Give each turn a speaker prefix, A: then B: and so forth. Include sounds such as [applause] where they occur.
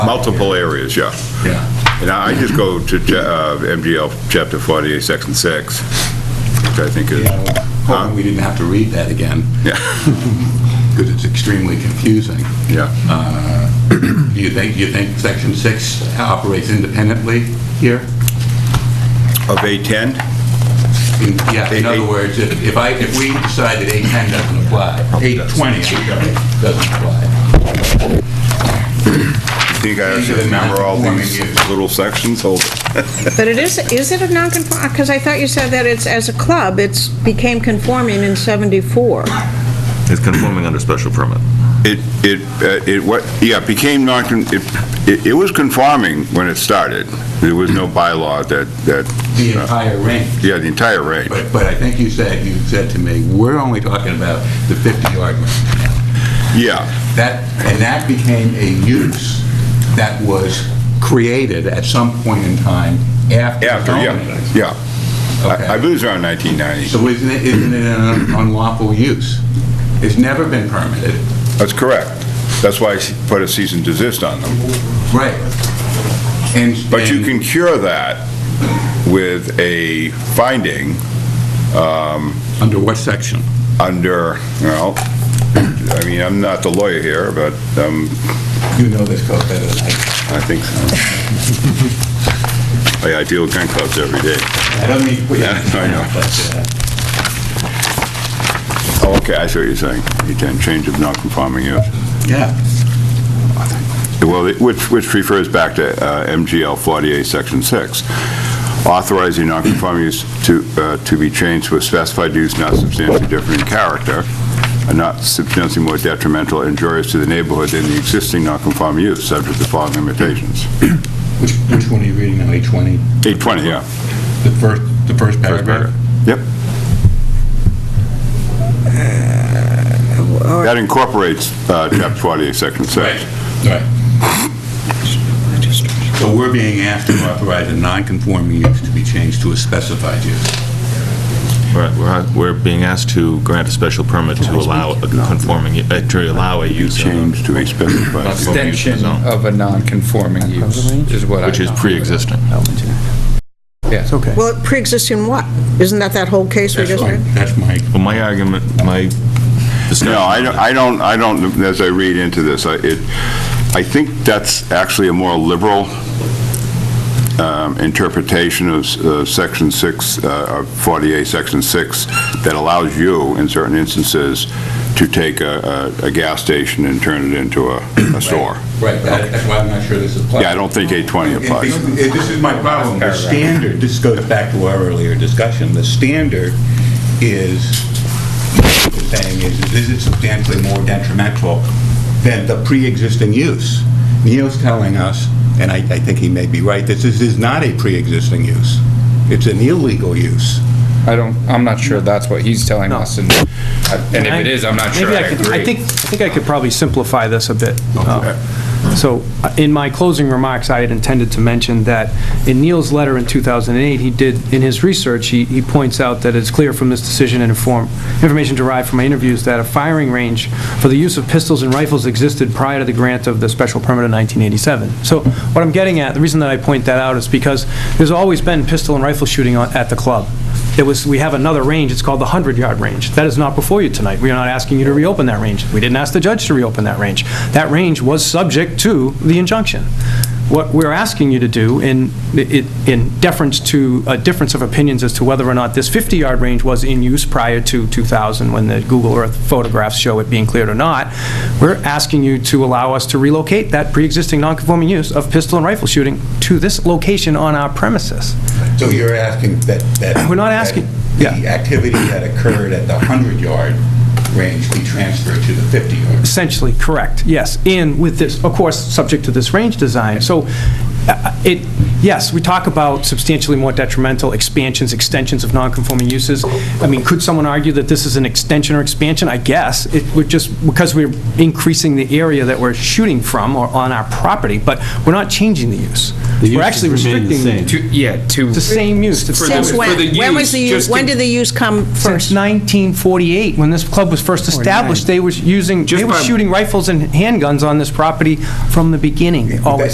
A: Multiple areas, yeah.
B: Yeah.
A: And I I just go to uh, MGL Chapter 48, Section 6, which I think is,
B: Hoping we didn't have to read that again,
A: yeah, [laughs]
B: because it's extremely confusing.
A: yeah.
B: Uh, Do you think, do you think Section 6 operates independently here?
A: Of A10?
B: In- Yeah, in
A: Eight-
B: other
A: eight-
B: words, if if I, if we decide that 810 doesn't apply, 820 doesn't apply,
A: I think I actually remember all these little sections, hold it.
C: But it is, is it a non-conform, because I thought you said that it's, as a club, it's became conforming in 74.
D: It's conforming under special permit.
A: It, it, uh, it, what, yeah, it became non, it, it- it was conforming when it started. There was no bylaw that, that,
B: the entire range.
A: yeah, the entire range.
B: But, but I think you said, you said to me, we're only talking about the 50-yard range.
A: Yeah,
B: That, and that became a use that was created at some point in time after.
A: after, yeah,
B: zoning.
A: yeah. I I
B: Okay.
A: believe it's around 1990.
B: So isn't it, isn't it an unlawful use? It's never been permitted.
A: That's correct. That's why I put a cease and desist on them.
B: Right. And.
A: But you
B: and-
A: can cure that with a finding
B: Under what section?
A: under, well, I mean, I'm not the lawyer here, but um,
B: You know this code better than I.
A: I think so. [laughs] I I deal with gun clubs every day.
B: I don't mean to put you.
A: Yeah, I know.
B: but, uh,
A: Oh, okay, I see what you're saying. You can change of non-conforming use.
B: Yeah.
A: Well, it- which, which refers back to uh, MGL 48, Section 6, authorizing non-conforming use to, uh, to be changed to a specified use not substantially different in character, and not substantially more detrimental or injurious to the neighborhood than the existing non-conforming use, subject to the following limitations.
B: Which, which one are you reading now, 820?
A: 820, yeah.
B: The first, the first paragraph?
A: Yep. That incorporates uh, Chapter 48, Section 6.
B: Right. So we're being asked to authorize a non-conforming use to be changed to a specified use.
D: Right, we're, we're being asked to grant a special permit to allow a conforming, uh, to allow a use, of-
A: Change to a specified use.
E: extension of a non-conforming use is what I...
D: which is pre-existing.
E: Yes. Okay.
C: Well, it pre-existing what? Isn't that that whole case we just
B: That's my-
C: read?
B: That's my,
D: Well, my argument, my discussion.
A: No, I don't, I don't, I don't, as I read into this, I, it, I think that's actually a more liberal um, interpretation of s- uh, Section 6, uh, of 48, Section 6, that allows you, in certain instances, to take a, a a gas station and turn it into a a store.
B: right, that- that's why I'm not sure this applies.
A: Yeah, I don't think 820 applies.
B: And This and this is my problem. The standard, this goes back to our earlier discussion, the standard is, what you're saying is, is it substantially more detrimental than the pre-existing use? Neil's telling us, and I, I think he may be right, that this is not a pre-existing use. It's an illegal use.
E: I don't, I'm not sure that's what he's telling us, and and if it is, I'm not sure
F: Maybe
E: I
F: could-
E: agree.
F: I think, I think I could probably simplify this a bit. Uh, So, uh, in my closing remarks, I had intended to mention that in Neil's letter in 2008, he did, in his research, he, he points out that it's clear from this decision and inform, information derived from my interviews that a firing range for the use of pistols and rifles existed prior to the grant of the special permit in 1987. So, what I'm getting at, the reason that I point that out is because there's always been pistol and rifle shooting on- at the club. It was, we have another range, it's called the 100-yard range. That is not before you tonight. We are not asking you to reopen that range. We didn't ask the judge to reopen that range. That range was subject to the injunction. What we're asking you to do, in it- in deference to a difference of opinions as to whether or not this 50-yard range was in use prior to 2000, when the Google Earth photographs show it being cleared or not, we're asking you to allow us to relocate that pre-existing non-conforming use of pistol and rifle shooting to this location on our premises.
B: So you're asking that, that...
F: We're not asking-
B: that The activity that occurred at the 100-yard range be transferred to the 50-yard.
F: Essentially, correct, yes. And with this, of course, subject to this range design. So uh, it, yes, we talk about substantially more detrimental expansions, extensions of nonconforming uses. I mean, could someone argue that this is an extension or expansion? I guess. It would just, because we're increasing the area that we're shooting from or on our property, but we're not changing the use. We're actually restricting
E: To- Yeah, to...
F: It's the same use. It's the same-
C: Since when? When was the use, when did the use come
F: Since
C: first?
F: 1948, when this club was first established, they were using, they were shooting rifles and handguns on this property from the beginning, always.